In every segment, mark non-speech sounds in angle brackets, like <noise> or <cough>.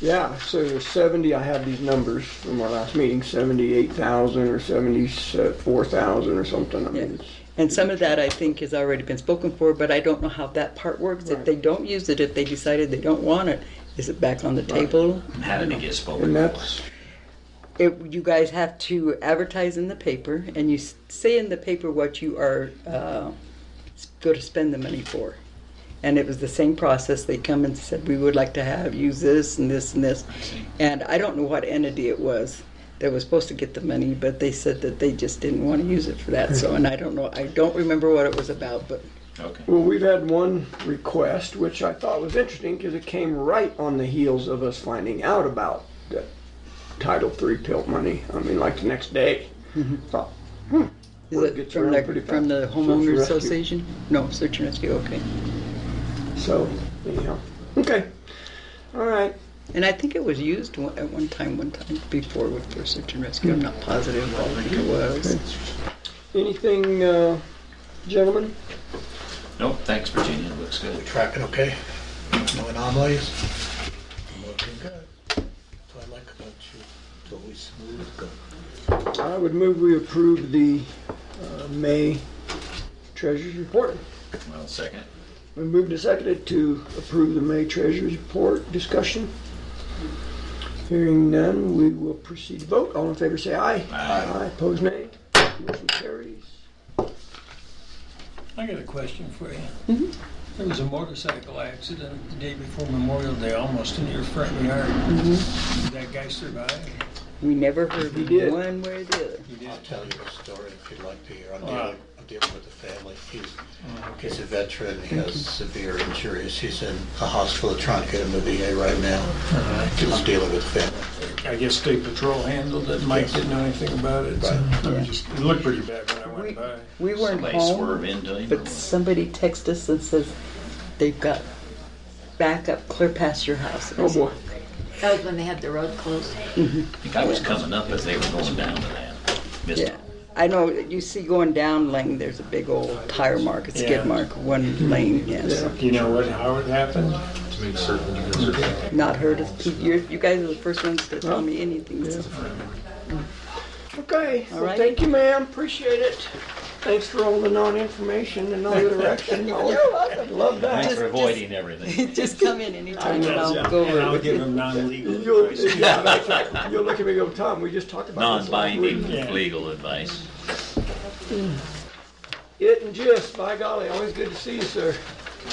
Yeah, so 70, I have these numbers from our last meeting, 78,000 or 74,000 or something. I mean, Yeah. it's, And some of that I think has already been spoken for, but I don't know how that part works. If Right. they don't use it, if they decided they don't want it, is it back on the table? How did it get spoken? and that's, It, you guys have to advertise in the paper and you s- say in the paper what you are uh, s- going to spend the money for. And it was the same process. They come and said, we would like to have, use this and this and this. And I don't know what entity it was that was supposed to get the money, but they said that they just didn't want to use it for that. So, and I don't know, I don't remember what it was about, but Okay. well, we've had one request, which I thought was interesting because it came right on the heels of us finding out about the Title III tilt money. I mean, like the next day. Thought, Is Word it gets from around the, pretty from the fast. Search and homeowner rescue. association? No, search and rescue, okay. So, anyhow, okay. All right. And I think it was used one- at one time, one time before with for search and rescue, I'm not positive, but I think it was. Anything, uh, gentlemen? Nope, thanks Virginia, it looks good. Tracking okay? No anomalies? I'm Looking good. That's what I like about you. It's always smooth, good. I would move we approve the uh, May Treasurer's Report. Well, second. We moved to seconded to approve the May Treasurer's Report. Discussion? Hearing none, we will proceed to vote. All in favor, say aye. Aye. Aye, pose nay. Motion carries. I got a question for you. There was a motorcycle accident the day before Memorial Day, almost in your front yard. Did that guy survive? We never heard We did. one way or the other. He did. I'll tell you a story if you'd like to hear. I'm Wow. dealing, I'm dealing with a family. He's, Oh, Okay. he's a veteran. He has severe injuries. He's in a hospital trying to get him to VA right now. All right. He was dealing with a family. I guess State Patrol handled it, Mike didn't know anything about it. so Right. I was just- It looked pretty bad when I We, went by. we weren't Somebody swerve home, into him or but what? somebody texted us and says, they've got backup clear past your house. Oh, boy. That was when they had the road closed. I think I was coming up as they were going down to that. Missed Yeah, it. I know, you see going down Lane, there's a big old tire mark, a Yeah. skid mark, one lane, yes. Do you know what, how it happened? Not heard of, you you guys are the first ones to tell me anything, so. Okay, All well, right. thank you, ma'am. Appreciate it. Thanks for all the non-information and all <laughs> the direction. Always Love Thanks that. for <laughs> avoiding everything. <laughs> Just come in anytime and I'll go And over I'll it. give him <laughs> non-legal. You'll, advice. yeah, that's right. You'll look at me and go, Tom, we just talked about this last week." Yeah. Non-binding legal advice. It and just, by golly, always good to see you, sir.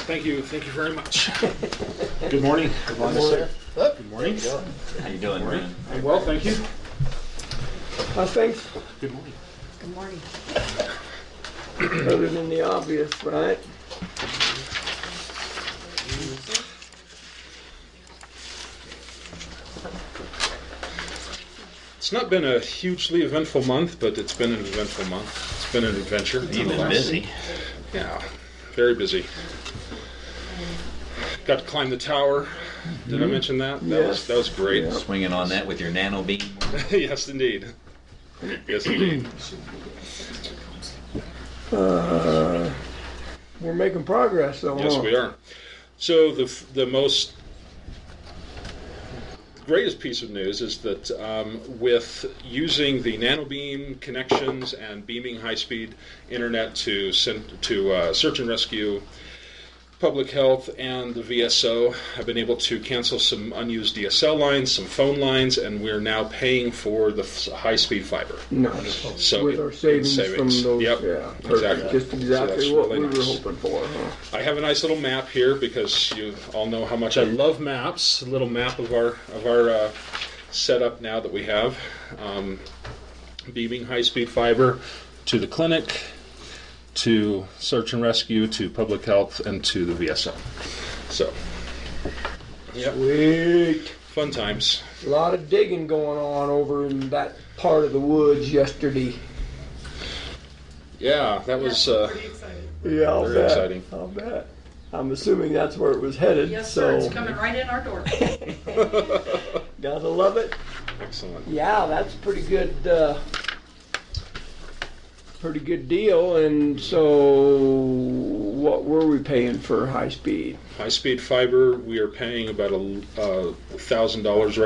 Thank you, thank you <laughs> very much. Good morning. Good morning, sir. Good morning. How you doing, man? I'm Well, thank you. I think, Good morning. Good morning. other than the obvious, right? It's not been a hugely eventful month, but it's been an eventful month. It's been an adventure. You've been busy. Yeah, very busy. Got to climb the tower. Did I mention that? That Yes. was that was great. Swinging on that with your nano beam. <laughs> yes, indeed. Yes, <clears throat> indeed. We're making progress, though. Yes, huh? we are. So the f- the most greatest piece of news is that um, with using the nanobeam connections and beaming high-speed internet to send, to uh, search and rescue, public health, and the VSO, I've been able to cancel some unused DSL lines, some phone lines, and we're now paying for the f- high-speed fiber. Nice. So Oh, With our savings, savings. from those, Yep, yeah, exactly. perfect. Just So exactly that's what really we were nice. hoping for, huh? I have a nice little map here because you all know how much I love maps. A little map of our of our uh, setup now that we have, um, beaming high-speed fiber to the clinic, to search and rescue, to public health, and to the VSO. So, Sweet. fun times. A lot of digging going on over in that part of the woods yesterday. Yeah, that was uh, Yeah, I'll Very bet. exciting. I'll bet. I'm assuming that's where it was headed. Yes, sir, so it's coming right in our door. gotta love it. excellent. Yeah, that's pretty good. Uh, pretty good deal. And so, what were we paying for high speed? High speed fiber, we are paying about a uh, thousand dollars right